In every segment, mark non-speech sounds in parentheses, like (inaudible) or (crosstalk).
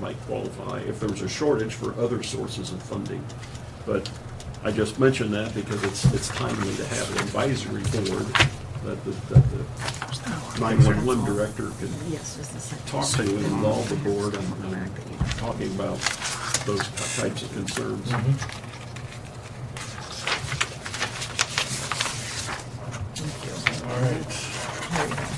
might qualify if there's a shortage for other sources of funding. But I just mentioned that because it's, it's timely to have an advisory board that the, that the nine-one-one director can Yes, it's the second. talk to and involve the board in in talking about those types of concerns. Thank you. All right. Here we go.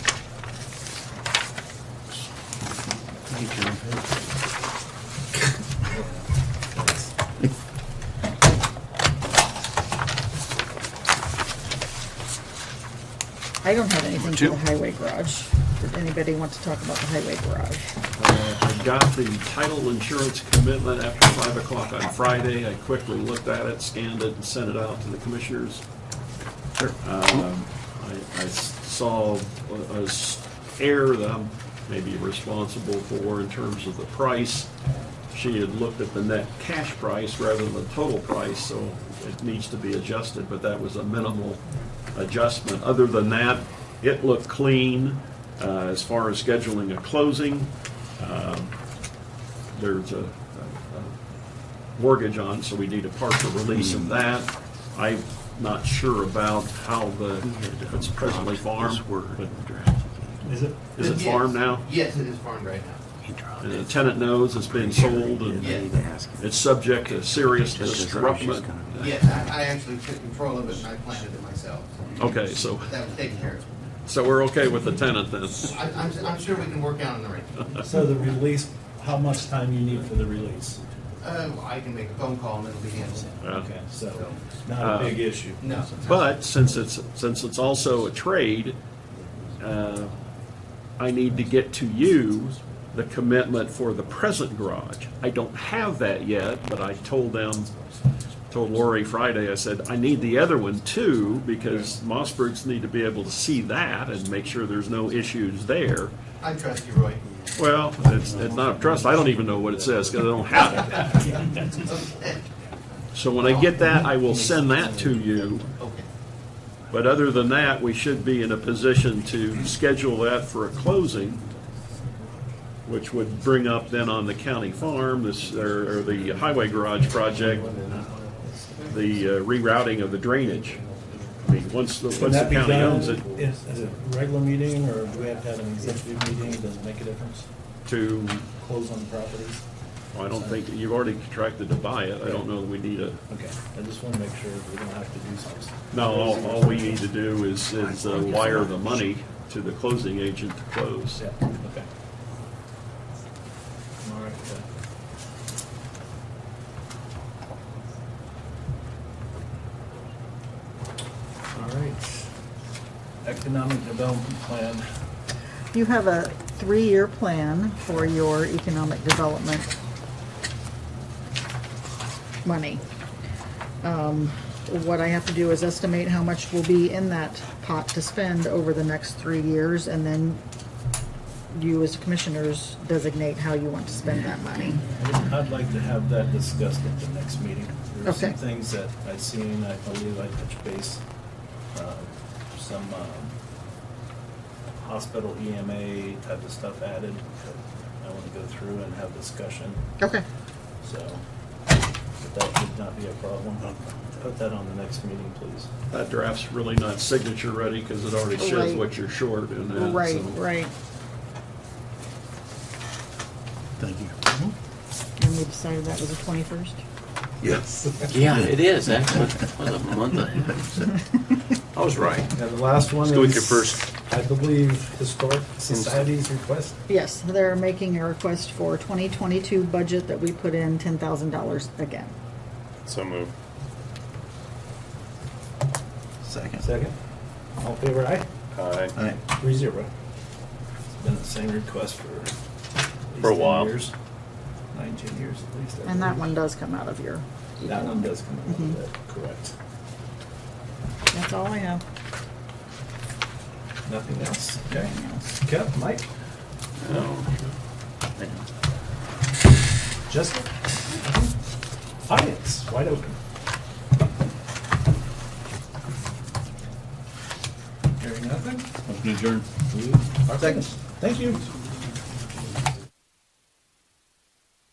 I don't have anything for the highway garage. Did anybody want to talk about the highway garage? Uh, I got the title insurance commitment after five o'clock on Friday. I quickly looked at it, scanned it, and sent it out to the commissioners. Um, I I s- saw a- a s- error that I'm maybe responsible for in terms of the price. She had looked at the net cash price rather than the total price, so it needs to be adjusted, but that was a minimal adjustment. Other than that, it looked clean uh, as far as scheduling a closing. Um, There's a a- a mortgage on, so we need a partial release of that. I'm not sure about how the, it's presently farmed, but Is it? is it farmed now? Yes, it is farmed right now. And the tenant knows it's being sold, and it's subject to serious disruption. Yes, I, I actually took control of it and I planted it myself. Okay, so, That was taken care of. so we're okay with the tenant then? I, I'm, I'm sure we can work out an (laughs) arrangement. So the release, how much time you need for the release? Uh, I can make a phone call and it'll be handled. Uh, Okay, so not a big issue. No. But since it's, since it's also a trade, uh, I need to get to you the commitment for the present garage. I don't have that yet, but I told them, told Lori Friday, I said, I need the other one too, because Mossbergs need to be able to see that and make sure there's no issues there. I trust you, Roy. Well, it's, it's not a trust, I don't even know what it says, because I don't have it. Okay. So when I get that, I will send that to you. Okay. But other than that, we should be in a position to schedule that for a closing, which would bring up then on the county farm, this, or or the highway garage project, the uh, rerouting of the drainage. I mean, once, the once Can the that be county done owns it, Is, is it a regular meeting or do we have to have an executive meeting? Does it make a difference? to, Close on properties? I don't think, you've already contracted to buy it, I don't know that we need a, Okay, I just want to make sure we don't have to do something. no, all, all we need to do is, is uh, wire the money to the closing agent to close. Yeah, okay. uh, All right, uh, All right. Economic Development Plan. You have a three-year plan for your economic development money. Um, What I have to do is estimate how much will be in that pot to spend over the next three years, and then you as commissioners designate how you want to spend that money. I'd- I'd like to have that discussed at the next meeting. There are some Okay. things that I seen, I believe I touched base, uh, some um, hospital EMA type of stuff added. that I want to go through and have discussion, Okay. so but that should not be a problem. Put that on the next meeting, please. That draft's really not signature ready, because it already shows Right. what you're short in that. so- Right, right. Thank you. And we decided that was the 21st? Yeah, it is. That was, was a month ahead. I was right. Now, the last one Let's go with your first. I believe, Historic Society's request. Yes, they're making a request for 2022 budget that we put in $10,000 again. So move. (laughs) Second. Second. All in favor, aye? Aye. All right. Three zero. It's been the same request for. at least For a 10 while. years. Nine, ten years at least. I And that believe. one does come out of your. That one does come out Mhm. of that, correct. That's all I have. Nothing else, okay? Yep, Mike, Justin? Audience, wide open. Hearing nothing? Motion adjourned. Second. Thank you.